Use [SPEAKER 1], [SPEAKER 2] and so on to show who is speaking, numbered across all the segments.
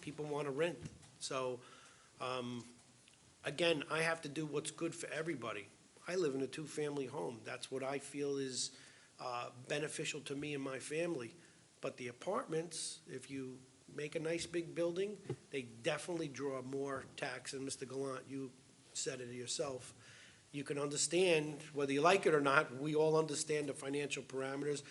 [SPEAKER 1] people want to rent. So, um, again, I have to do what's good for everybody. I live in a two-family home. That's what I feel is uh, beneficial to me and my family. But the apartments, if you make a nice big building, they definitely draw more tax. And Mr. Gallant, you said it yourself. You can understand, whether you like it or not, we all understand the financial parameters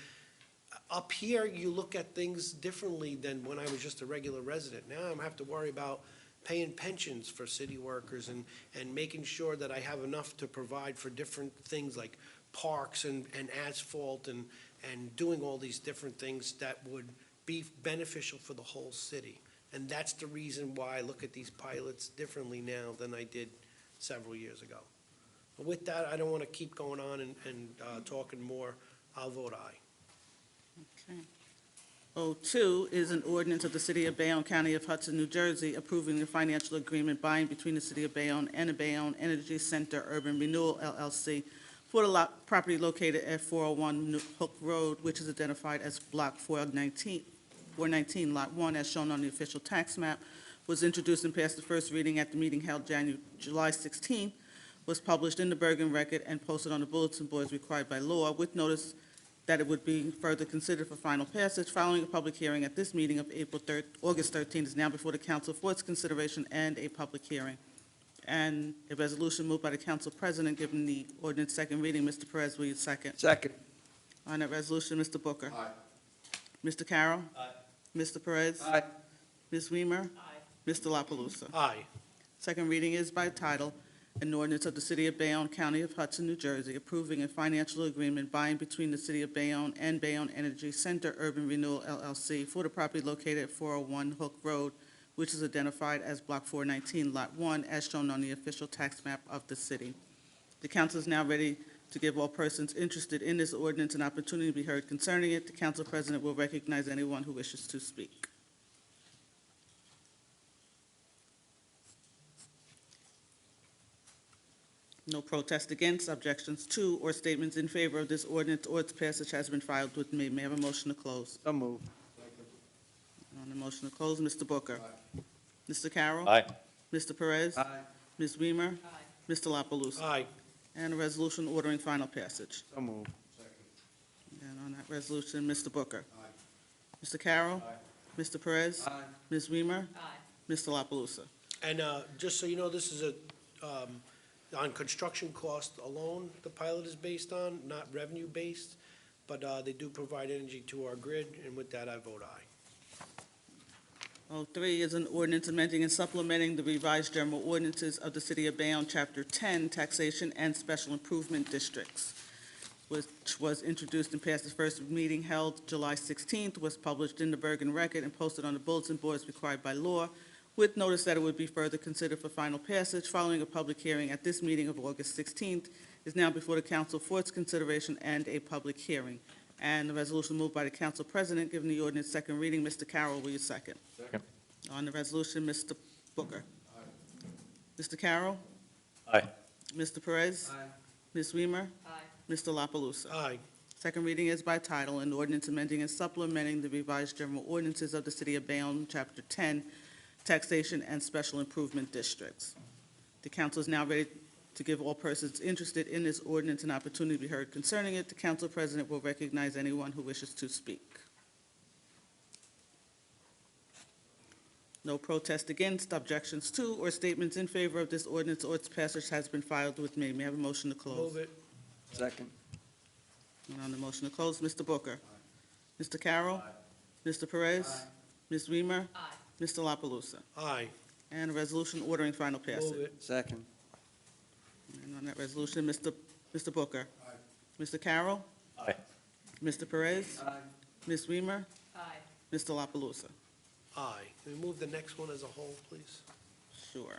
[SPEAKER 1] up here, you look at things differently than when I was just a regular resident. Now I'm have to worry about paying pensions for city workers and, and making sure that I have enough to provide for different things like parks and, and asphalt and, and doing all these different things that would be beneficial for the whole city. And that's the reason why I look at these pilots differently now than I did several years ago. With that, I don't want to keep going on and, and, uh, talking more. I'll vote aye.
[SPEAKER 2] Okay. O two is an ordinance of the City of Bayonne, County of Hudson, New Jersey, approving the financial agreement binding between the City of Bayonne and the Bayonne Energy Center Urban Renewal LLC for the lot, property located at four oh one New Hook Road, which is identified as block four nineteen, four nineteen, lot one, as shown on the official tax map, was introduced and passed the first reading at the meeting held Janu, July 16, was published in the Bergen Record and posted on the bulletin boards required by law with notice that it would be further considered for final passage following a public hearing at this meeting of April 3rd, August 13th is now before the council for its consideration and a public hearing. And a resolution moved by the council president, given the ordinance second reading, Mr. Perez, will you second?
[SPEAKER 3] Second.
[SPEAKER 2] On that resolution, Mr. Booker. Aye. Mr. Carroll. Aye. Mr. Perez.
[SPEAKER 3] Aye.
[SPEAKER 2] Ms. Weimer. Aye. Mr. La Palusa.
[SPEAKER 1] Aye.
[SPEAKER 2] Second reading is by title, an ordinance of the City of Bayonne, County of Hudson, New Jersey, approving a financial agreement by and between the City of Bayonne and Bayonne Energy Center Urban Renewal LLC for the property located at 401 Hook Road, which is identified as Block 419, Lot 1, as shown on the official tax map of the city. The council is now ready to give all persons interested in this ordinance an opportunity to be heard concerning it. The council president will recognize anyone who wishes to speak. No protest against, objections to, or statements in favor of this ordinance or its passage has been filed with me. May I have a motion to close?
[SPEAKER 3] So move.
[SPEAKER 2] On the motion to close, Mr. Booker. Mr. Carroll.
[SPEAKER 4] Aye.
[SPEAKER 2] Mr. Perez.
[SPEAKER 3] Aye.
[SPEAKER 2] Ms. Weimer. Mr. La Palusa.
[SPEAKER 1] Aye.
[SPEAKER 2] And a resolution ordering final passage.
[SPEAKER 3] So move.
[SPEAKER 2] And on that resolution, Mr. Booker. Mr. Carroll. Mr. Perez.
[SPEAKER 3] Aye.
[SPEAKER 2] Ms. Weimer. Mr. La Palusa.
[SPEAKER 1] And uh, just so you know, this is a, um, on construction cost alone, the pilot is based on, not revenue-based, but uh, they do provide energy to our grid, and with that, I vote aye.
[SPEAKER 2] O3 Oh, is an ordinance amending and supplementing the revised general ordinances of the City of Bayonne, Chapter 10, Taxation and Special Improvement Districts, which was introduced and passed the first meeting held July 16th, was published in the Bergen Record and posted on the bulletin boards required by law, with notice that it would be further considered for final passage following a public hearing at this meeting of August 16th, is now before the council for its consideration and a public hearing. And the resolution moved by the council president, given the ordinance second reading. Mr. Carroll, will you second?
[SPEAKER 4] Second.
[SPEAKER 2] On the resolution, Mr. Booker. Mr. Carroll.
[SPEAKER 4] Aye.
[SPEAKER 2] Mr. Perez.
[SPEAKER 3] Aye.
[SPEAKER 2] Ms. Weimer. Mr. La Palusa.
[SPEAKER 1] Aye.
[SPEAKER 2] Second reading is by title, an ordinance amending and supplementing the revised general ordinances of the City of Bayonne, Chapter 10, Taxation and Special Improvement Districts. The council is now ready to give all persons interested in this ordinance an opportunity to be heard concerning it. The council president will recognize anyone who wishes to speak. No protest against, objections to, or statements in favor of this ordinance or its passage has been filed with me. May I have a motion to close?
[SPEAKER 1] Move it.
[SPEAKER 3] Second.
[SPEAKER 2] And on the motion to close, Mr. Booker. Mr. Carroll. Mr. Perez. Ms. Weimer. Mr. La Palusa.
[SPEAKER 1] Aye.
[SPEAKER 2] And a resolution ordering final
[SPEAKER 1] Move
[SPEAKER 2] passage.
[SPEAKER 1] it.
[SPEAKER 3] Second.
[SPEAKER 2] And on that resolution, Mr. Mr. Booker. Mr. Carroll.
[SPEAKER 4] Aye.
[SPEAKER 2] Mr. Perez.
[SPEAKER 3] Aye.
[SPEAKER 2] Ms. Weimer. Mr. La Palusa.
[SPEAKER 1] Aye. Can we move the next one as a whole, please?
[SPEAKER 2] Sure.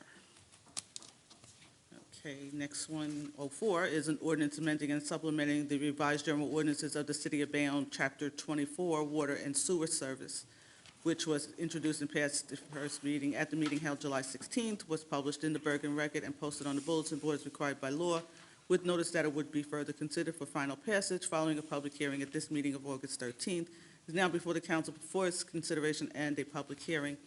[SPEAKER 2] Okay, next one, oh four, is an ordinance amending and supplementing the revised general ordinances of the City of Bayonne, Chapter twenty-four, Water and Sewer Service, which was introduced and passed the first reading at the meeting held July sixteenth, was published in the Bergen Record and posted on the bulletin boards required by law, with notice that it would be further considered for final passage following a public hearing at this meeting of August thirteenth, is now before the council for its consideration and a public hearing.